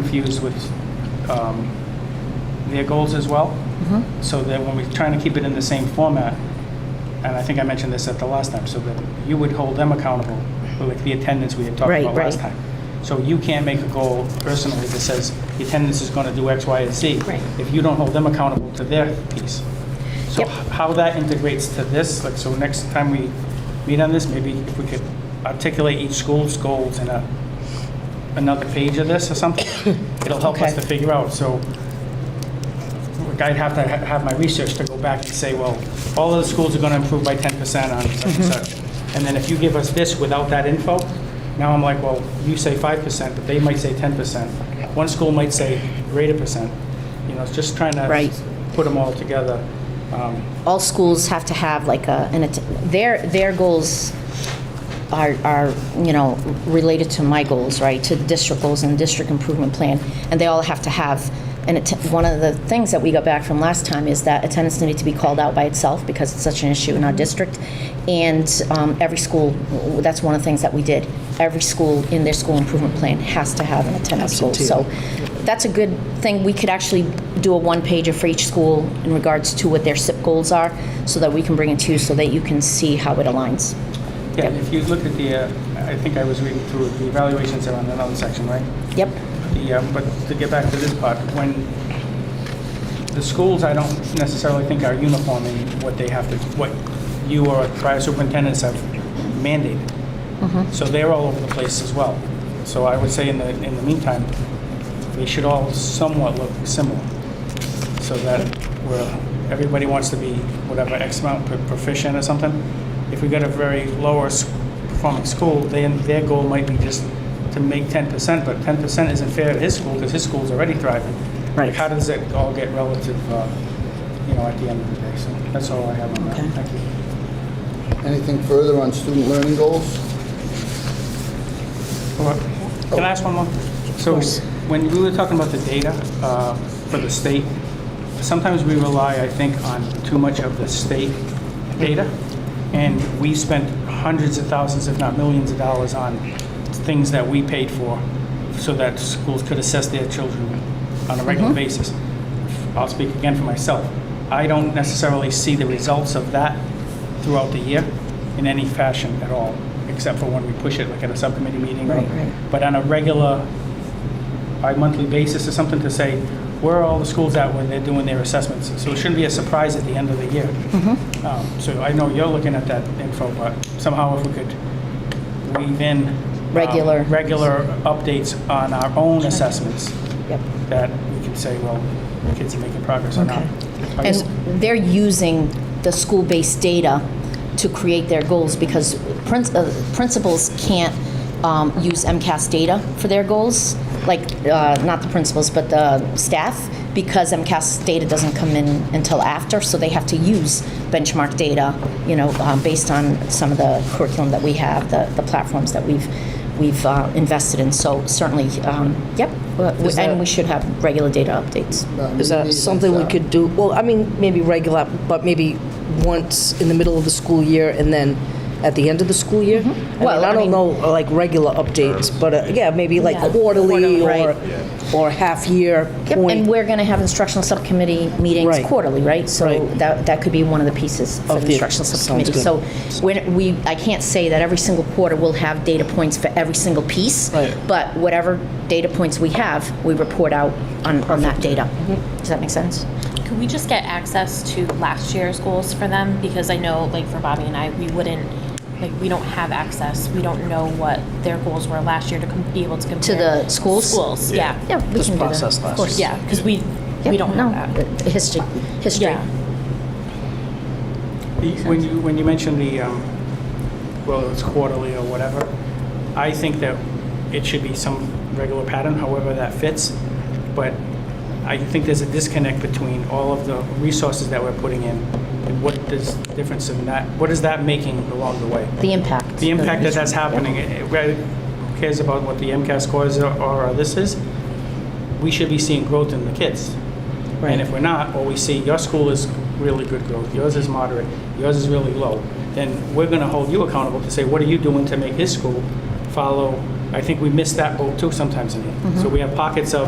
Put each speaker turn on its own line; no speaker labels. confused with um, their goals as well.
Mm-hmm.
So that when we're trying to keep it in the same format, and I think I mentioned this at the last time, so that you would hold them accountable, for, like the attendance we had talked
Right,
about last
right.
time. So you can't make a goal personally that says the attendance is going to do X, Y, and Z.
Right.
If you don't hold them accountable to their piece. So
Yep.
h- how that integrates to this, like, so next time we meet on this, maybe if we could articulate each school's goals in a, another page of this or something, it'll help us
Okay.
to figure out, so like, I'd have to ha- have my research to go back and say, well, all of the schools are going to improve by 10% on such and such.
Mm-hmm.
And then if you give us this without that info, now I'm like, well, you say 5%, but they might say 10%. One school might say greater percent. You know, it's just trying to
Right.
put them all together. Um,
all schools have to have like a, an, att- their, their goals are, are, you know, related to my goals, right? To the district goals and district improvement plan, and they all have to have, and one of the things that we got back from last time is that attendance needed to be called out by itself because it's such an issue in our district. And um, every school, that's one of the things that we did. Every school in their school improvement plan has to have an attendance goal. So that's a good thing. We could actually do a one-pager for each school in regards to what their SIP goals are, so that we can bring it to you, so that you can see how it aligns.
Yeah, if you look at the, uh, I think I was reading through, the evaluations are on another section, right?
Yep,
The, uh, but to get back to this part, when the schools, I don't necessarily think are uniform in what they have to, what you or prior superintendents have mandated. So they're all over the place as well. So I would say in the, in the meantime, they should all somewhat look similar. So that where everybody wants to be whatever X amount pro- proficient or something. If we got a very lower s- performing school, then their goal might be just to make 10%, but 10% isn't fair to his school because his school's already thriving.
Right.
Like, How does it all get relative, uh, you know, at the end of the day? So that's all I have on that.
Okay.
Thank you.
Anything further on student learning goals?
Well, Can I ask one more? So
course.
when we were talking about the data uh, for the state, sometimes we rely, I think, on too much of the state data. And we spent hundreds of thousands, if not millions of dollars on things that we paid for so that schools could assess their children on a regular basis. I'll speak again for myself. I don't necessarily see the results of that throughout the year in any fashion at all, except for when we push it, like at a subcommittee meeting. or-
Right, right.
But on a regular, bi-monthly basis or something to say, where are all the schools at when they're doing their assessments? So it shouldn't be a surprise at the end of the year.
Mm-hmm.
Um, So I know you're looking at that info, but somehow if we could weave in. um,
Regular.
Regular updates on our own assessments
yep.
that we can say, well, kids are making progress or not. I
And
guess-
they're using the school-based data to create their goals because prin- uh, principals can't um, use MCAS data for their goals, like, uh, not the principals, but the staff, because MCAS data doesn't come in until after, so they have to use benchmark data, you know, um, based on some of the curriculum that we have, the the platforms that we've, we've uh, invested in. So certainly, um, yep,
Is that-
and we should have regular data updates.
Is that something we could do, well, I mean, maybe regular, but maybe once in the middle of the school year and then at the end of the school year?
Mm-hmm. Well,
Well,
I
I
mean-
don't know, uh, like, regular updates, but, uh, yeah, maybe like
Yeah.
quarterly
Quarter,
or, or half-year
Yep, and
point
we're going to have instructional subcommittee meetings
Right.
quarterly, right? So
Right.
that, that could be one of the pieces for
Of
the
the-
instructional
sounds
subcommittee.
good.
So when we, I can't say that every single quarter we'll have data points for every single piece.
Right.
But whatever data points we have, we report out on, on that data.
Mm-hmm.
Does that make sense?
Could we just get access to last year's goals for them? Because I know, like, for Bobby and I, we wouldn't, like, we don't have access. We don't know what their goals were last year to com- be able to compare.
the schools?
Schools, yeah.
Yeah, we
This
can do that.
process
Of
last
course.
Yeah, because we,
Yep,
we don't
no,
have that.
uh, History, history.
Yeah.
The- When you, when you mention the, um, well, it's quarterly or whatever, I think that it should be some regular pattern, however that fits. But I think there's a disconnect between all of the resources that we're putting in and what does difference in that, what is that making along the way?
The impact.
The impact that that's happening, eh, whether- who cares about what the MCAS scores are or this is? We should be seeing growth in the kids. And if we're not, or we see your school is really good growth, yours is moderate, yours is really low, then we're going to hold you accountable to say, what are you doing to make his school follow? I think we miss that boat too sometimes in here. So we have pockets of